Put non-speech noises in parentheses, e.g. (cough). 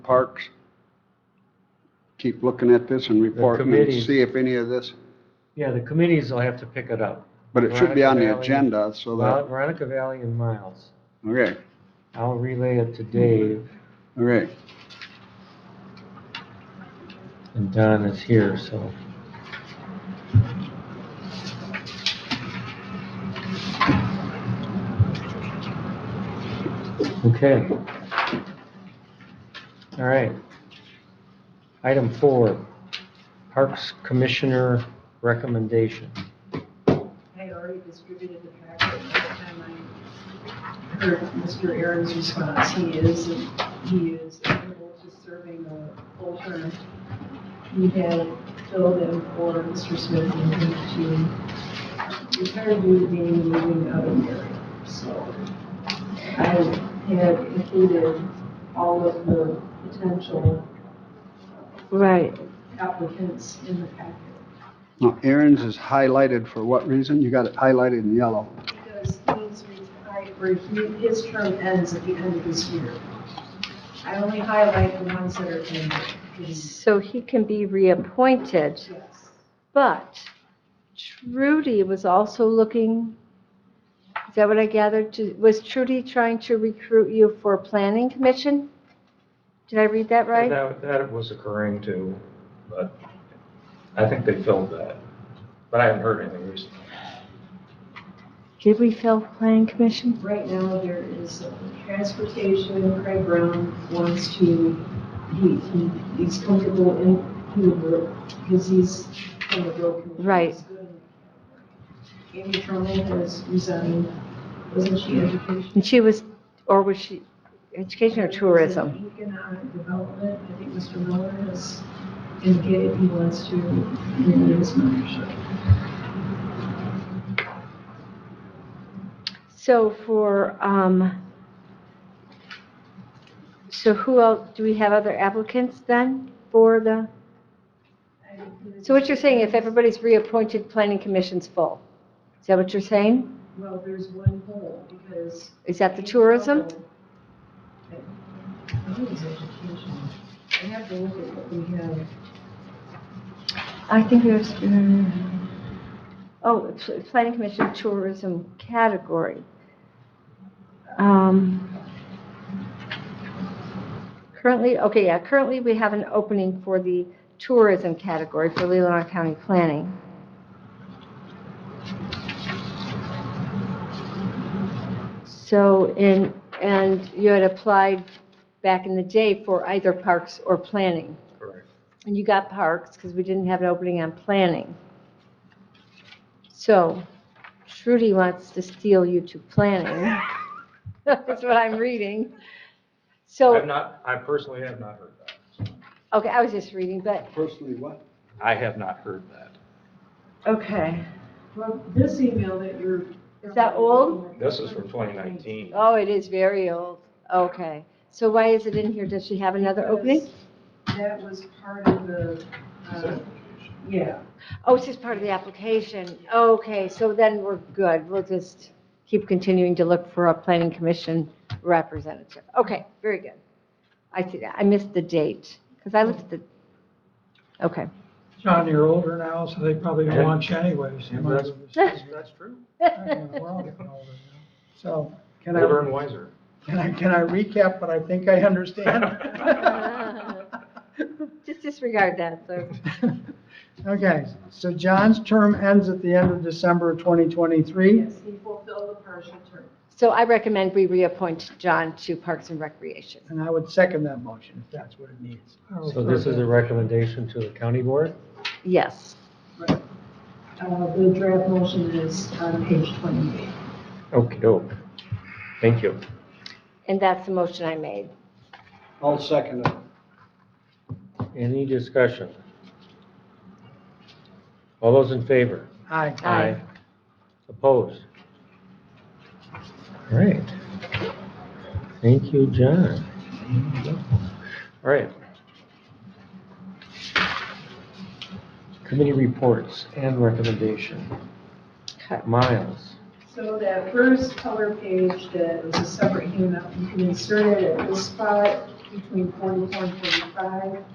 Parks, keep looking at this and reporting and committee. see if any of this, Yeah, the committees will have to pick it up. but it should be on the Veronica Valley. agenda so Well, that, Veronica Valley and Miles. okay, I'll relay it to Dave, okay. and Don is here, so. Okay. All right. Item four, Parks Commissioner recommendation. I had already distributed the packet by the time I heard Mr. Aaron's response. He is, he is able to serving a full term. He had filled in for Mr. Smith and he to retire due to being moving out of here. So I had included all of the potential Right. applicants in the packet. Now, Aaron's is highlighted for what reason? You got it highlighted in yellow. Because he's retired, or he, his term ends at the end of this year. I only highlight the ones that are in, because, So he can be reappointed, yes. but Trudy was also looking, is that what I gathered? To- Was Trudy trying to recruit you for planning commission? Did I read that right? That, that was occurring too, but I think they filled that. But I haven't heard anything recently. Did we fill planning commission? Right now, there is transportation, Craig Brown wants to, he, he, he's comfortable in, he, because he's from the Bill Committee. Right. Amy Truman has resigned, wasn't she education? And she was, or was she education or tourism? Economic development, I think Mr. Miller has indicated he wants to renew his membership. So for, um, so who else, do we have other applicants then for the? So what you're saying, if everybody's reappointed, planning commission's full? Is that what you're saying? Well, there's one hole, because. Is that the tourism? I think it's education. I have to look at what we have. I think there's, oh, it's- it's planning commission tourism category. Um, Currently, okay, yeah, currently we have an opening for the tourism category for Leelanau County Planning. So, in and you had applied back in the day for either parks or planning. Correct. And you got parks because we didn't have an opening on planning. So Trudy wants to steal you to planning. (laughs) That's what I'm reading. I've So, not, I personally have not heard that. okay, I was just reading, but, Personally, what? I have not heard that. okay. Well, this email that you're. Is that old? This is from 2019. Oh, it is very old. Okay. So why is it in here? Does she have another opening? Because That was part of the, uh, yeah. Oh, it's just part of the application. Okay, so then we're good. We'll just keep continuing to look for a planning commission representative. Okay, very good. I, see- I missed the date, because I looked at the, okay. (laughs) John, you're older now, so they probably don't want you anyways. You might as well just- That's true. We're all getting older now. So can Older I, and wiser. can I, can I recap what I think I understand? Just disregard that, so. Okay, so John's term ends at the end of December of 2023. Yes, he fulfilled the partial term. So I recommend we reappoint John to Parks and Recreation. And I would second that motion if that's what it needs. So this is a recommendation to the county board? Yes. Right. Uh, The draft motion is on page 28. okey doke. Thank you. And that's the motion I made. I'll second it. Any discussion? All those in favor? Aye. Aye. Opposed? All right. Thank you, John. All right. Committee reports and recommendation. Okay. Miles, So that first color page that was a separate handout, you can insert it at this spot. between 44 and 45.